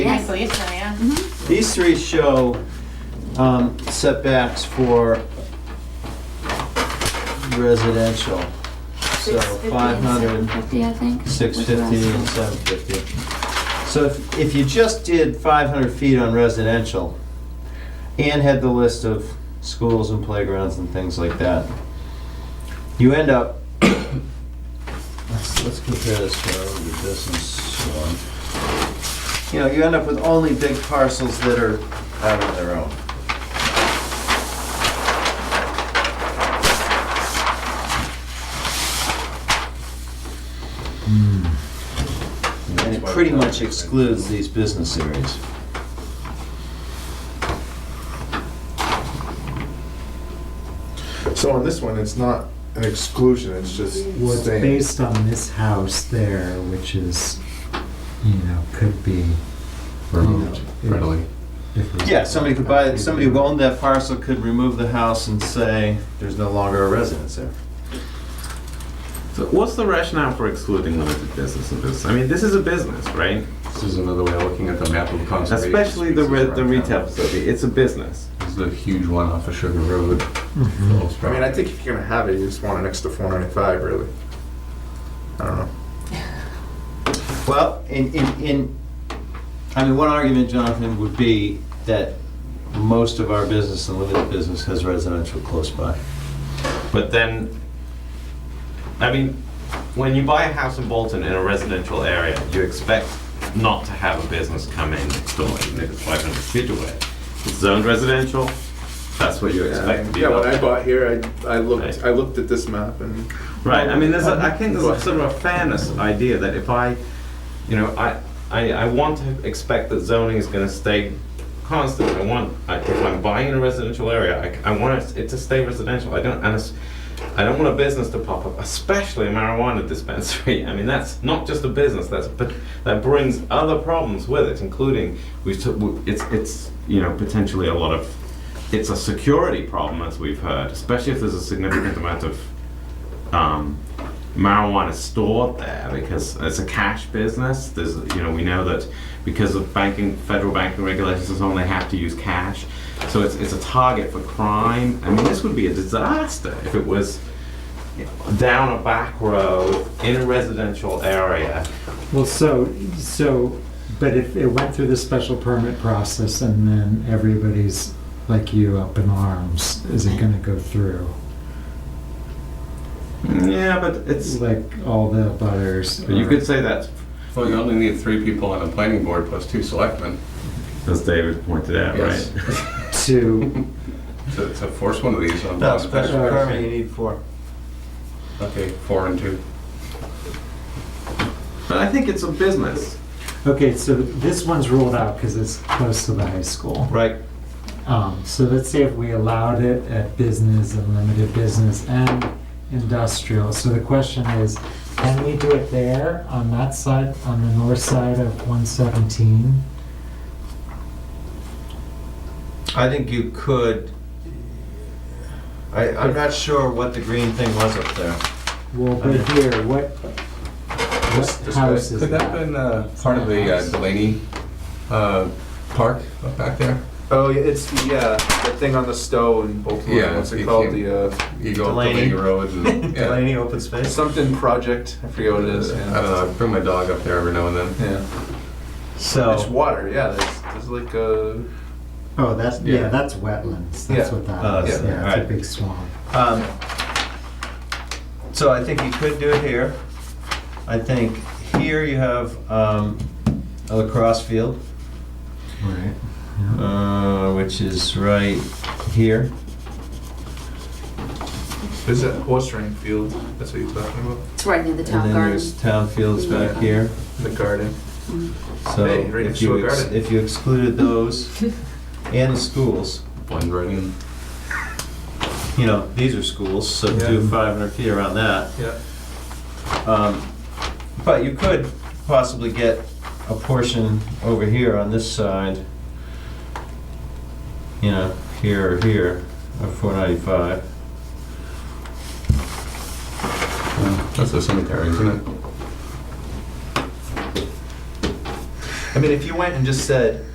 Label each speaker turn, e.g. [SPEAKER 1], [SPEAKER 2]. [SPEAKER 1] nicely, so yeah.
[SPEAKER 2] These three show um, setbacks for residential. So
[SPEAKER 1] 650 and
[SPEAKER 2] 500,
[SPEAKER 3] Fifty, I think.
[SPEAKER 2] 650, and 750. So if if you just did 500 feet on residential and had the list of schools and playgrounds and things like that, you end up, let's let's compare this to our other business one. You know, you end up with only big parcels that are out on their own. And it pretty much excludes these business areas.
[SPEAKER 4] So on this one, it's not an exclusion, it's just
[SPEAKER 5] Well, it's
[SPEAKER 4] staying.
[SPEAKER 5] based on this house there, which is, you know, could be.
[SPEAKER 6] removed readily.
[SPEAKER 5] if it was-
[SPEAKER 2] Yeah, somebody could buy, somebody who owned that parcel could remove the house and say, there's no longer a residence there.
[SPEAKER 7] So what's the rationale for excluding limited business and business? I mean, this is a business, right?
[SPEAKER 6] This is another way of looking at the map of conservation.
[SPEAKER 7] Especially the,
[SPEAKER 6] species
[SPEAKER 7] re- the
[SPEAKER 6] around
[SPEAKER 7] retail
[SPEAKER 6] town.
[SPEAKER 7] facility, it's a business.
[SPEAKER 6] This is a huge one off of Sugar Road. Phillips
[SPEAKER 4] I mean, I
[SPEAKER 6] Drive.
[SPEAKER 4] think if you're gonna have it, you just want an extra four ninety-five, really. I don't know.
[SPEAKER 2] Well, in, in, in, I mean, one argument, Jonathan, would be that most of our business and limited business has residential close by.
[SPEAKER 7] But then, I mean, when you buy a house in Bolton in a residential area, you expect not to have a business come in next door, even if it's 500 feet away. It's zoned residential, that's what you expect to be.
[SPEAKER 4] Yeah, when
[SPEAKER 7] built.
[SPEAKER 4] I bought here, I, I
[SPEAKER 7] Right.
[SPEAKER 4] looked, I looked at this map and.
[SPEAKER 7] Right, I mean, there's, a, I think there's a sort of a fairness idea that if I, you know, I, I, I want to expect that zoning is gonna stay constant, I want, I- if I'm buying in a residential area, I, c- I want it to stay residential, I don't, and it's, I don't want a business to pop up, especially a marijuana dispensary, I mean, that's not just a business, that's, but, that brings other problems with it, including, we've, t- w- it's, it's, you know, potentially a lot of, it's a security problem, as we've heard, especially if there's a significant amount of um, marijuana stored there because it's a cash business. There's, you know, we know that because of banking, federal banking regulations and so on, they have to use cash. So it's, it's a target for crime. I mean, this would be a disaster if it was you know, down a back road in a residential area.
[SPEAKER 5] Well, so, so, but if it went through the special permit process and then everybody's like you up in arms, is it gonna go through?
[SPEAKER 7] Yeah, but it's.
[SPEAKER 5] Like all the butters?
[SPEAKER 7] But you could say that,
[SPEAKER 6] Well, you only need three people on a planning board plus two selectmen.
[SPEAKER 7] as David pointed out,
[SPEAKER 6] Yes.
[SPEAKER 7] right?
[SPEAKER 5] To, uh,
[SPEAKER 6] To, to force one of these on.
[SPEAKER 2] No,
[SPEAKER 6] on-
[SPEAKER 2] special permit, you need four.
[SPEAKER 6] Okay, four and two.
[SPEAKER 7] But I think it's a business,
[SPEAKER 5] okay, so this one's ruled out because it's close to the high school.
[SPEAKER 7] right?
[SPEAKER 5] Um, so let's say if we allowed it at business and limited business and industrial. So the question is, can we do it there on that side, on the north side of 117?
[SPEAKER 2] I think you could, I, I'm not sure what the green thing was up there.
[SPEAKER 5] Well, but here, what, what house is
[SPEAKER 6] Could that have
[SPEAKER 5] that?
[SPEAKER 6] been uh, part of the uh, Delaney uh, Park up back there?
[SPEAKER 4] Oh, yeah, it's the, uh, the thing on the stove and Baltimore,
[SPEAKER 6] Yeah,
[SPEAKER 4] what's it
[SPEAKER 6] it
[SPEAKER 4] called,
[SPEAKER 6] came-
[SPEAKER 4] the, uh,
[SPEAKER 6] You go up
[SPEAKER 2] Delaney.
[SPEAKER 6] Delaney Road and, yeah.
[SPEAKER 2] Delaney Open Space?
[SPEAKER 4] something project, Uh, I forget what it is,
[SPEAKER 6] I don't
[SPEAKER 4] yeah.
[SPEAKER 6] know, I bring my dog up there every now and then.
[SPEAKER 4] Yeah, it's
[SPEAKER 2] So,
[SPEAKER 4] water, yeah, there's, there's like a,
[SPEAKER 5] Oh, that's, yeah,
[SPEAKER 4] Yeah.
[SPEAKER 5] that's wetlands. That's
[SPEAKER 4] Yeah.
[SPEAKER 5] what
[SPEAKER 2] Oh,
[SPEAKER 5] that is.
[SPEAKER 2] yeah,
[SPEAKER 5] Yeah, it's a
[SPEAKER 2] alright.
[SPEAKER 5] big swamp.
[SPEAKER 2] um, so I think you could do it here. I think here you have, um, a lacrosse field.
[SPEAKER 5] Right.
[SPEAKER 2] Uh, which is right here.
[SPEAKER 4] is that horse ring field, that's what you're talking about,
[SPEAKER 1] It's right near the
[SPEAKER 2] and
[SPEAKER 1] town
[SPEAKER 2] then
[SPEAKER 1] garden.
[SPEAKER 2] there's town fields back here.
[SPEAKER 4] in the garden?
[SPEAKER 2] So
[SPEAKER 4] Hey, right
[SPEAKER 2] if
[SPEAKER 4] next to
[SPEAKER 2] you
[SPEAKER 4] a
[SPEAKER 2] ex-
[SPEAKER 4] garden.
[SPEAKER 2] if you excluded those and the schools,
[SPEAKER 6] Blend right in.
[SPEAKER 2] you know these are schools, so
[SPEAKER 4] Yeah.
[SPEAKER 2] do 500 feet around that.
[SPEAKER 4] Yeah.
[SPEAKER 2] Um, but you could possibly get a portion over here on this side. You know, here or here, of 495.
[SPEAKER 6] That's the cemetery, isn't it?
[SPEAKER 4] I mean, if you went and just said,